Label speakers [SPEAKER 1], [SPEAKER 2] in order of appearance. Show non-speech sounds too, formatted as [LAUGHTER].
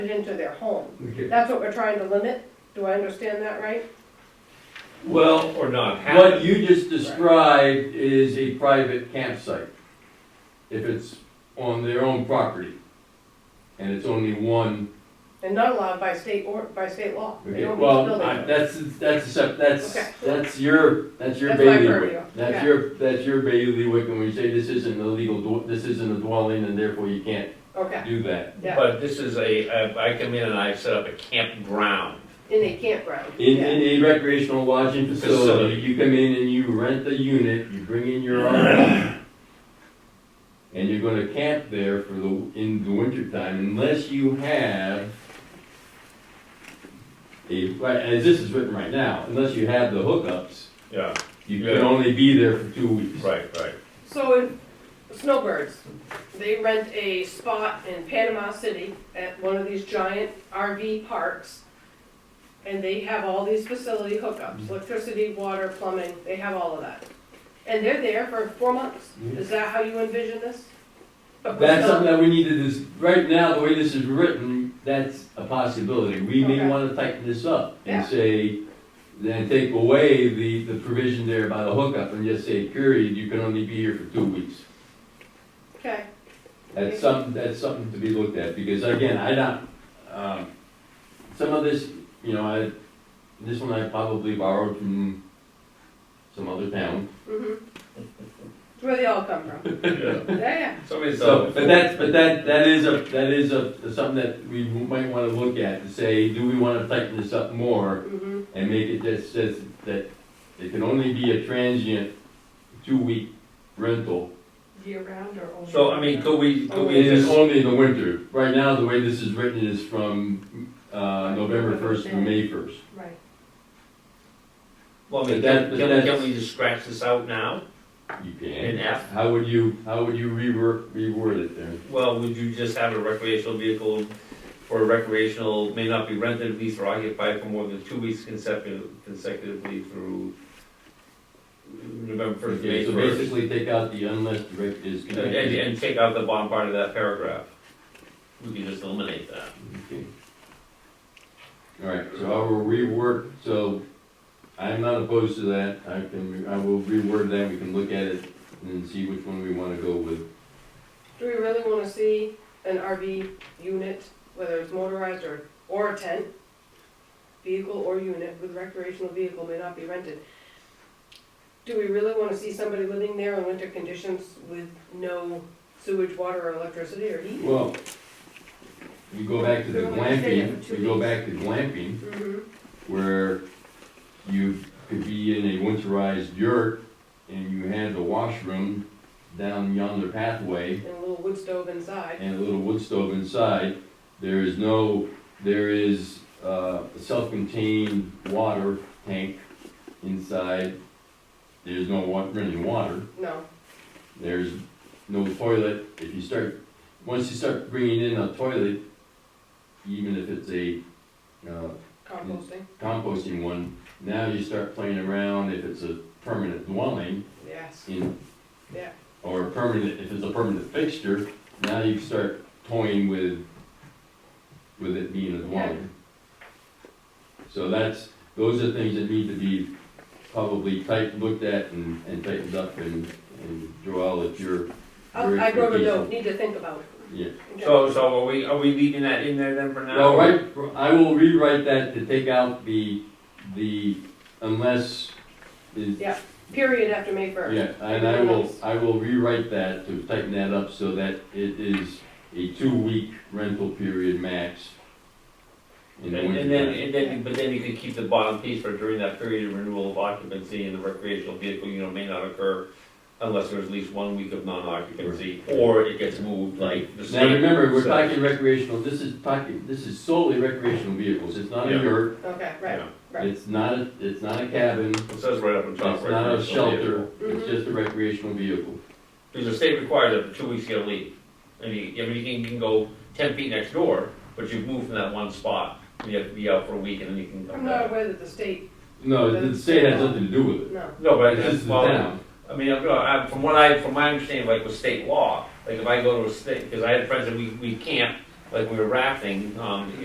[SPEAKER 1] it into their home.
[SPEAKER 2] We did.
[SPEAKER 1] That's what we're trying to limit, do I understand that right?
[SPEAKER 3] Well,
[SPEAKER 4] Or not
[SPEAKER 3] what
[SPEAKER 4] happen.
[SPEAKER 3] you just described is a private campsite. If it's on their own property. And it's only one,
[SPEAKER 1] And not allowed by state or, by state law. They
[SPEAKER 3] okay,
[SPEAKER 1] don't need
[SPEAKER 3] well,
[SPEAKER 1] building.
[SPEAKER 3] I- that's, that's, sep- that's,
[SPEAKER 1] Okay.
[SPEAKER 3] that's your, that's your
[SPEAKER 1] That's my purview,
[SPEAKER 3] bailiwick. That's
[SPEAKER 1] yeah.
[SPEAKER 3] your, that's your bailiwick, and when you say this isn't a legal, dw- this isn't a dwelling, and therefore you can't
[SPEAKER 1] Okay,
[SPEAKER 3] do that.
[SPEAKER 1] yeah,
[SPEAKER 4] But this is a, a- I come in and I set up a campground.
[SPEAKER 1] in a campground,
[SPEAKER 3] In,
[SPEAKER 1] yeah.
[SPEAKER 3] in a recreational lodging facility,
[SPEAKER 4] Facility.
[SPEAKER 3] you come in and you rent the unit, you bring in your own. And you're gonna camp there for the, in the wintertime unless you have a, right, as this is written right now, unless you have the hookups,
[SPEAKER 4] Yeah,
[SPEAKER 3] you can
[SPEAKER 4] Yeah.
[SPEAKER 3] only be there for two weeks.
[SPEAKER 4] right, [LAUGHS] right.
[SPEAKER 1] So in snowbirds, they rent a spot in Panama City at one of these giant RV parks. And they have all these facility
[SPEAKER 3] Mm-hmm.
[SPEAKER 1] hookups, electricity, water, plumbing, they have all of that. And they're there for four months. Is that how you envision this? But we're
[SPEAKER 3] Mm-hmm. That's
[SPEAKER 1] still-
[SPEAKER 3] something that we need to, dis- right now, the way this is written, that's a possibility. We may
[SPEAKER 1] Okay.
[SPEAKER 3] wanna tighten this up
[SPEAKER 1] Yeah.
[SPEAKER 3] and say, then take away the, the provision there about a hookup and just say, period, you can only be here for two weeks.
[SPEAKER 1] Okay,
[SPEAKER 3] That's something, that's something to be looked at, because again, I don't, um, some of this, you know, I, this one I probably borrowed from some other town.
[SPEAKER 1] mhm. It's where they all come
[SPEAKER 4] [LAUGHS]
[SPEAKER 1] from.
[SPEAKER 4] Yeah.
[SPEAKER 1] Yeah, yeah.
[SPEAKER 4] Somebody's
[SPEAKER 3] So, uh,
[SPEAKER 4] done
[SPEAKER 3] but that's, but that, that is a, that is a, something that we might wanna look at, to say, do we wanna tighten this up more?
[SPEAKER 1] Mm-hmm,
[SPEAKER 3] And make it just says that it can only be a transient, two-week rental.
[SPEAKER 5] year round or only?
[SPEAKER 4] So, I mean, could we, could
[SPEAKER 3] It
[SPEAKER 4] we
[SPEAKER 3] is
[SPEAKER 4] just,
[SPEAKER 3] only in the winter, right now, the way this is written is from, uh, November first to May first.
[SPEAKER 5] Right,
[SPEAKER 4] well, I
[SPEAKER 3] But
[SPEAKER 4] mean,
[SPEAKER 3] that-
[SPEAKER 4] can,
[SPEAKER 3] but
[SPEAKER 4] can we-
[SPEAKER 3] that's-
[SPEAKER 4] can we just scratch this out now
[SPEAKER 3] You
[SPEAKER 4] in
[SPEAKER 3] can,
[SPEAKER 4] F?
[SPEAKER 3] how would you, how would you reword, reword it there?
[SPEAKER 4] Well, would you just have a recreational vehicle for recreational, may not be rented, leased or occupied for more than two weeks consecutive- consecutively through November first, May
[SPEAKER 3] Okay, so
[SPEAKER 4] first?
[SPEAKER 3] basically take out the unless direct is
[SPEAKER 4] And,
[SPEAKER 3] connected.
[SPEAKER 4] and take out the bottom part of that paragraph. We can just eliminate that.
[SPEAKER 3] Okay. All right, so I will rework, so I'm not opposed to that, I can, I will reword that, we can look at it and see which one we wanna go with.
[SPEAKER 1] do we really wanna see an RV unit, whether it's motorized or, or a tent? Vehicle or unit with recreational vehicle may not be rented. Do we really wanna see somebody living there in winter conditions with no sewage, water, or electricity or heat?
[SPEAKER 3] Well, you go back to the
[SPEAKER 5] They're only gonna stay there
[SPEAKER 3] glamping,
[SPEAKER 5] for two
[SPEAKER 3] you go
[SPEAKER 5] weeks.
[SPEAKER 3] back to glamping,
[SPEAKER 1] Mm-hmm,
[SPEAKER 3] where you could be in a winterized yurt, and you had the washroom down yonder pathway,
[SPEAKER 1] and a little wood stove inside.
[SPEAKER 3] and a little wood stove inside. There is no, there is uh, a self-contained water tank inside. There's no wa- running water.
[SPEAKER 1] No,
[SPEAKER 3] There's no toilet. If you start, once you start bringing in a toilet, even if it's a uh,
[SPEAKER 1] composting,
[SPEAKER 4] Mm.
[SPEAKER 3] composting one, now you start playing around if it's a permanent dwelling
[SPEAKER 1] yes,
[SPEAKER 3] in,
[SPEAKER 1] yeah.
[SPEAKER 3] or a permanent, if it's a permanent fixture, now you start toying with, with it being a dwelling. So that's, those are things that need to be probably tight, looked at and, and tightened up and, and Joel, if you're,
[SPEAKER 1] I'll- I wrote a note, need to think about it.
[SPEAKER 3] yeah.
[SPEAKER 1] Okay.
[SPEAKER 4] So, so are we, are we leaving that in there then for now?
[SPEAKER 3] No, right, I will rewrite that to take out the, the unless is
[SPEAKER 1] Period after May first.
[SPEAKER 3] Yeah, and I will, I will rewrite that to tighten that up so that it is a two-week rental period max. in
[SPEAKER 4] And
[SPEAKER 3] the
[SPEAKER 4] and then,
[SPEAKER 3] wintertime.
[SPEAKER 4] and then, but then you could keep the bottom piece for during that period of renewal of occupancy and the recreational vehicle, you know, may not occur unless there's at least one week of non-occupancy, or it gets moved like the
[SPEAKER 3] Now,
[SPEAKER 4] state.
[SPEAKER 3] remember, we're
[SPEAKER 4] says.
[SPEAKER 3] talking recreational, this is talking, this is solely recreational vehicles, it's not a
[SPEAKER 4] Yeah.
[SPEAKER 3] yurt,
[SPEAKER 1] Okay, right,
[SPEAKER 4] Yeah.
[SPEAKER 1] Right.
[SPEAKER 3] it's not, a it's not a cabin, it's
[SPEAKER 4] It says right up on top.
[SPEAKER 3] not a
[SPEAKER 4] recreational
[SPEAKER 3] shelter,
[SPEAKER 4] vehicle.
[SPEAKER 3] it's
[SPEAKER 1] Mhm.
[SPEAKER 3] just a recreational vehicle.
[SPEAKER 4] Because the state requires that for two weeks you gotta leave. I mean, I mean, you can, you can go ten feet next door, but you've moved from that one spot, and you have to be out for a week and then you can
[SPEAKER 1] I'm
[SPEAKER 4] come
[SPEAKER 1] not
[SPEAKER 4] back.
[SPEAKER 1] aware that the state,
[SPEAKER 3] No, the state has nothing to do with it,
[SPEAKER 1] no,
[SPEAKER 4] No, but
[SPEAKER 3] this
[SPEAKER 4] that's,
[SPEAKER 3] is the
[SPEAKER 4] well,
[SPEAKER 3] town.
[SPEAKER 4] I mean, I've got- I, from what I, from my understanding, like with state law, like if I go to a state, because I had friends that we, we camped like when we were rafting, um,